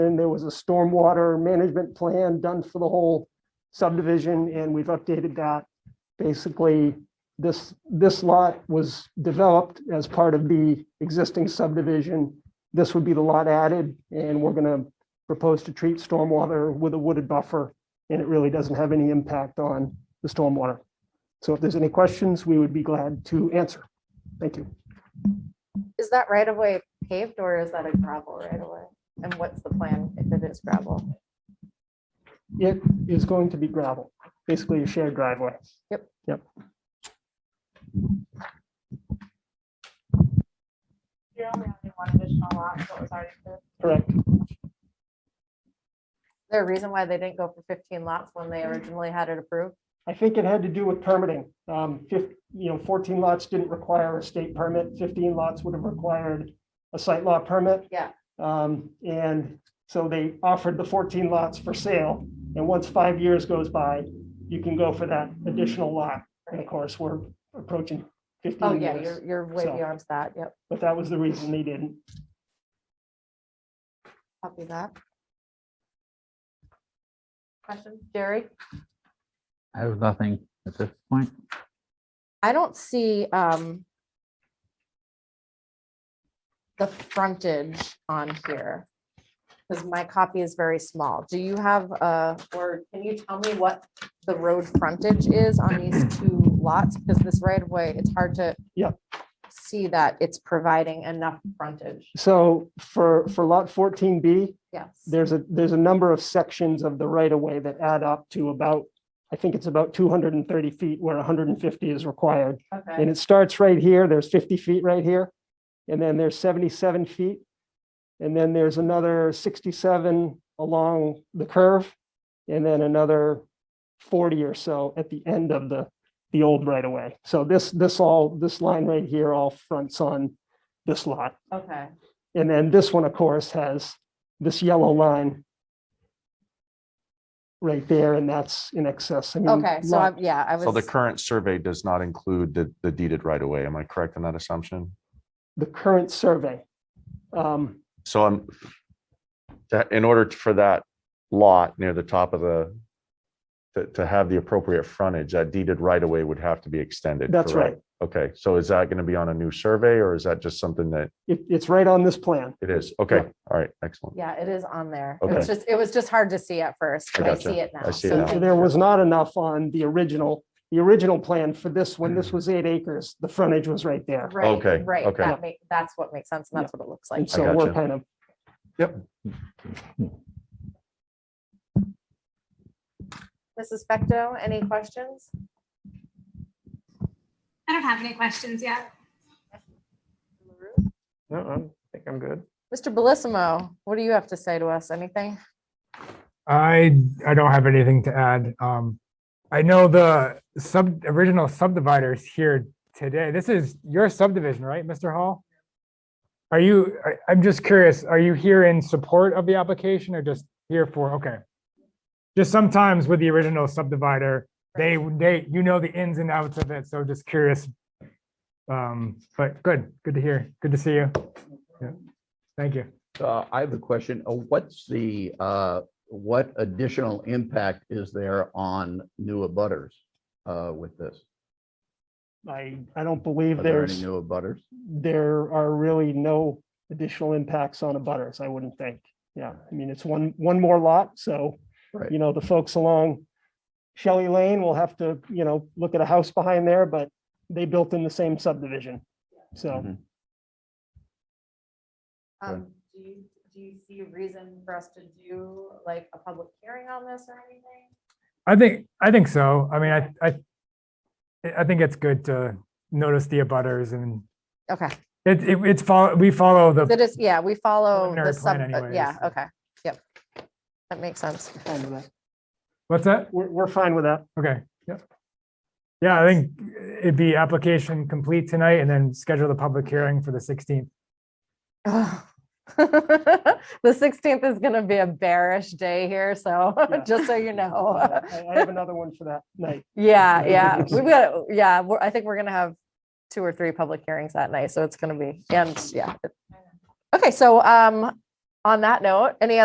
And there was a stormwater management plan done for the whole subdivision, and we've updated that. Basically, this, this lot was developed as part of the existing subdivision. This would be the lot added, and we're gonna propose to treat stormwater with a wooded buffer, and it really doesn't have any impact on the stormwater. So if there's any questions, we would be glad to answer. Thank you. Is that right of way paved or is that a gravel right of way? And what's the plan if it is gravel? It is going to be gravel, basically a shared driveway. You're only adding one additional lot, what was already there. Correct. a reason why they didn't go for fifteen lots when they originally had it approved? I think it had to do with permitting. Um, fif- you know, fourteen lots didn't require a state permit, fifteen lots would have required a site law permit. Yeah. Um, and so they offered the fourteen lots for sale, and once five years goes by, you can go for that additional lot. And of Right. course, we're approaching Oh, fifteen yeah, you're, years, you're way so- beyond that. Yep, but that was the reason they didn't. copy that. Question, Jerry? I have nothing at this point. I don't see, um, the frontage on here, because my copy is very small. Do you have, uh, or can you tell me what the road frontage is on these two lots? Because this right of way, it's hard to Yeah. see that it's providing enough frontage. So for, for lot fourteen B, Yes. there's a, there's a number of sections of the right of way that add up to about, I think it's about two hundred and thirty feet where hundred and fifty is required. And Okay. it starts right here, there's fifty feet right here, and then there's seventy-seven feet. And then there's another sixty-seven along the curve, and then another forty or so at the end of the, the old right of way. So this, this all, this line right here all fronts on this lot. Okay. And then this one, of course, has this yellow line right there, and that's in excess. I mean, Okay, so lot- I'm, yeah, I was. So the current survey does not include the, the deeded right away. Am I correct in that assumption? The current survey. um, So I'm, that, in order for that lot near the top of the, to, to have the appropriate frontage, that deeded right away would have to be extended. That's right. correct? Okay, so is that going to be on a new survey or is that just something that It, it's right on this plan. it is? Okay, all right, excellent. Yeah, it is on there. It was Okay. just, it was just hard to see at first. I but I gotcha. see it now. I see it So now. thank There you. was not enough on the original, the original plan for this, when Mm. this was eight acres, the frontage was right there. Right, Okay, Right, okay. that make, that's what makes sense, and that's what it looks like. And so we're gotcha. kind of. Mrs. Fecto, any questions? I don't have any questions yet. No, I think I'm good. Mr. Bellissimo, what do you have to say to us? Anything? I, I don't have anything to add. Um, I know the sub, original subdividers here today. This is your subdivision, right, Mr. Hall? Are you, I, I'm just curious, are you here in support of the application or just here for, okay? Just sometimes with the original subdivider, they, they, you know the ins and outs of it, so just curious. Um, but good, good to hear. Good to see you. Yeah. Thank you. Uh, I have a question. Uh, What's the, uh, what additional impact is there on new abutters uh, with this? I, I don't believe Are there any there's, new abutters? there are really no additional impacts on abutters, I wouldn't think. Yeah, I mean, it's one, one more lot, so you Right, know, the folks along Shelley Lane will have to, you know, look at a house behind there, but they built in the same subdivision. So Mhm. Um, Do you, do you see a reason for us to do like a public hearing on this or anything? I think, I think so. I mean, I, I, I think it's good to notice the abutters and Okay, it, it, it's follow, we follow the, that is, yeah, we follow the Preliminary sub, plan uh, yeah, anyways. okay, yep. That makes sense. fine with that. what's that? we're, we're fine with that. Okay, yeah. Yeah, I think it'd be application complete tonight and then schedule the public hearing for the sixteenth. The sixteenth is gonna be a bearish day here, so Yeah. just so you know. I I have another one for that night. Yeah, yeah, we got, yeah, we're, I think we're gonna have two or three public hearings that night, so it's gonna be, and, yeah. Okay, so, um, on that note, any